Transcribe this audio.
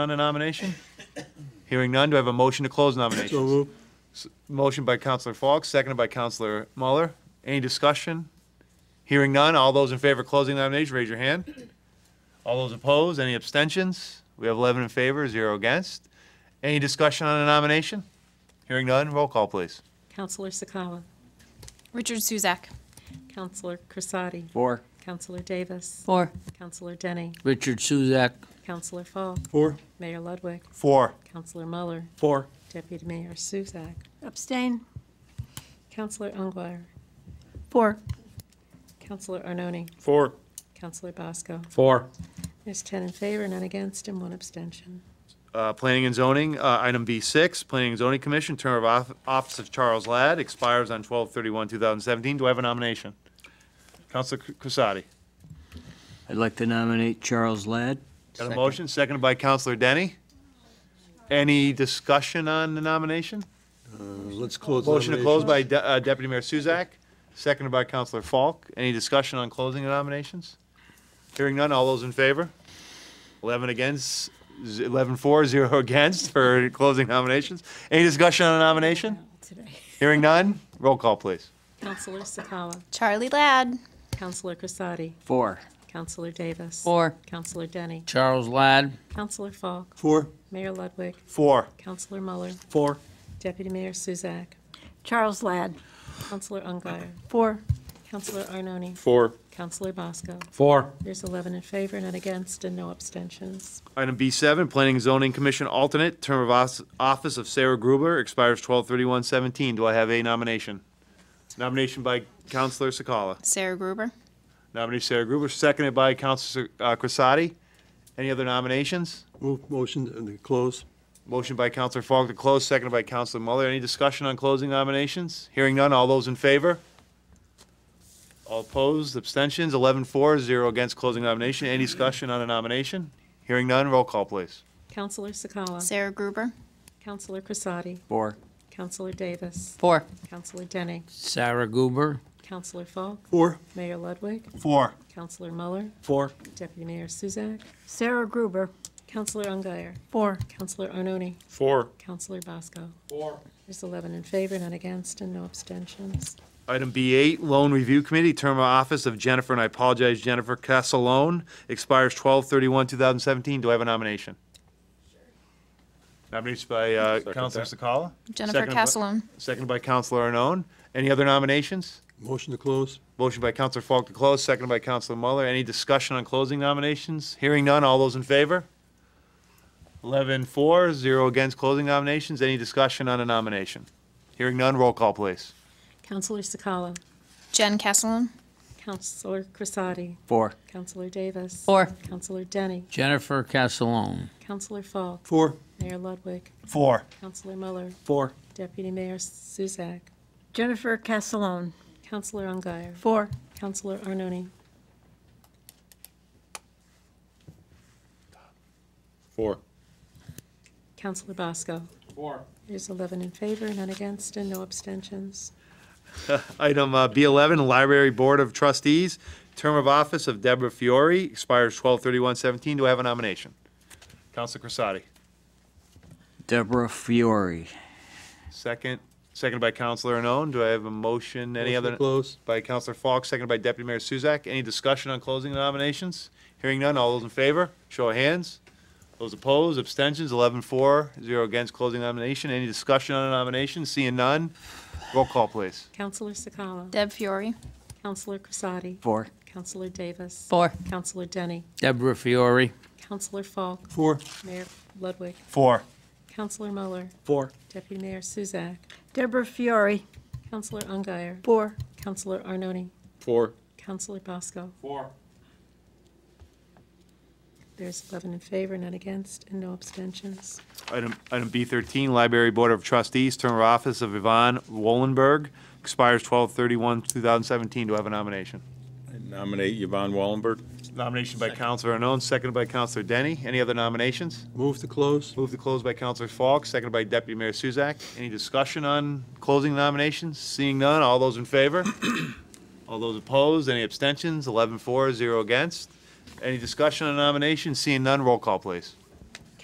On a nomination? Hearing none, do I have a motion to close So nominations? moved. Motion by Counselor Falk, seconded by Counselor Muller. Any discussion? Hearing none, all those in favor of closing nominations, raise your hand. All those opposed, any abstentions? We have 11 in favor, zero against. Any discussion on a nomination? Hearing none, roll call, please. Counselor Sakawa. Richard Suzak. Counselor Crisati. Four. Counselor Davis. Four. Counselor Denny. Richard Suzak. Counselor Falk. Four. Mayor Ludwig. Four. Counselor Muller. Four. Deputy Mayor Suzak. Abstain. Counselor Ungary. Four. Counselor Arnone. Four. Counselor Bosco. Four. There's 10 in favor, none against, and one abstention. Uh, Planning and zoning, uh, item B6, Planning and Zoning Commission, term of off- office of Charles Ladd expires on 12/31/2017. Do I have a nomination? Counselor Crissati. I'd like to nominate Charles Ladd. Got a motion, seconded by Counselor Denny. Any discussion on the nomination? Let's close Motion to close nominations. by De- uh, Deputy Mayor Suzak, seconded by Counselor Falk. Any discussion on closing the nominations? Hearing none, all those in favor? 11 against, z- 11 for, 0 against for closing nominations. Any discussion on the nomination? Today. Hearing none, roll call, please. Counselor Sakawa. Charlie Ladd. Counselor Crisati. Four. Counselor Davis. Four. Counselor Denny. Charles Ladd. Counselor Falk. Four. Mayor Ludwig. Four. Counselor Muller. Four. Deputy Mayor Suzak. Charles Ladd. Counselor Ungary. Four. Counselor Arnone. Four. Counselor Bosco. Four. There's 11 in favor, none against, and no abstentions. Item B7, Planning and Zoning Commission alternate, term of os- office of Sarah Gruber expires 12/31/17. Do I have a nomination? Nomination by Counselor Sakala. Sarah Gruber. Nominee Sarah Gruber, seconded by Counselor uh, Crisati. Any other nominations? Move motion to close. Motion by Counselor Falk to close, seconded by Counselor Muller. Any discussion on closing nominations? Hearing none, all those in favor? All opposed, abstentions, 11 for, 0 against closing nomination. Any discussion on a nomination? Hearing none, roll call, please. Counselor Sakala. Sarah Gruber. Counselor Crisati. Four. Counselor Davis. Four. Counselor Denny. Sarah Goober. Counselor Falk. Four. Mayor Ludwig. Four. Counselor Muller. Four. Deputy Mayor Suzak. Sarah Gruber. Counselor Ungary. Four. Counselor Arnone. Four. Counselor Bosco. Four. There's 11 in favor, none against, and no abstentions. Item B8, Loan Review Committee, term of office of Jennifer, and I apologize, Jennifer Casalone, expires 12/31/2017. Do I have a nomination? Nomination by uh, Counselor Sakala, Jennifer Second by- Castellone. seconded by Counselor Arnone. Any other nominations? Motion to close. Motion by Counselor Falk to close, seconded by Counselor Muller. Any discussion on closing nominations? Hearing none, all those in favor? 11 for, 0 against closing nominations. Any discussion on a nomination? Hearing none, roll call, please. Counselor Sakala. Jen Castellone. Counselor Crisati. Four. Counselor Davis. Four. Counselor Denny. Jennifer Castellone. Counselor Falk. Four. Mayor Ludwig. Four. Counselor Muller. Four. Deputy Mayor Suzak. Jennifer Castellone. Counselor Ungary. Four. Counselor Arnone. Four. Counselor Bosco. Four. There's 11 in favor, none against, and no abstentions. Item uh, B11, Library Board of Trustees, term of office of Deborah Fiore expires 12/31/17. Do I have a nomination? Counselor Crissati, Deborah Fiore. second, seconded by Counselor Arnone. Do I have a motion? Any Motion to other? Close. By Counselor Falk, seconded by Deputy Mayor Suzak. Any discussion on closing the nominations? Hearing none, all those in favor, show of hands. Those opposed, abstentions, 11 for, 0 against closing nomination. Any discussion on a nomination? Seeing none, roll call, please. Counselor Sakala. Deb Fiore. Counselor Crisati. Four. Counselor Davis. Four. Counselor Denny. Deborah Fiore. Counselor Falk. Four. Mayor Ludwig. Four. Counselor Muller. Four. Deputy Mayor Suzak. Deborah Fiore. Counselor Ungary. Four. Counselor Arnone. Four. Counselor Bosco. Four. There's 11 in favor, none against, and no abstentions. Item, item B thirteen, Library Board of Trustees, term of office of Yvonne Wollenberg, expires twelve thirty-one, two thousand seventeen. Do I have a nomination? I Nominate Yvonne Wallenberg. Nomination by Counselor Arnone, seconded by Counselor Denny. Any other nominations? Move to close. Moved to close by Counselor Falk, seconded by Deputy Mayor Suzak. Any discussion on closing nominations? Seeing none, all those in favor? All those opposed? Any abstentions? Eleven for, zero against. Any discussion on nominations? Seeing none, roll call, please.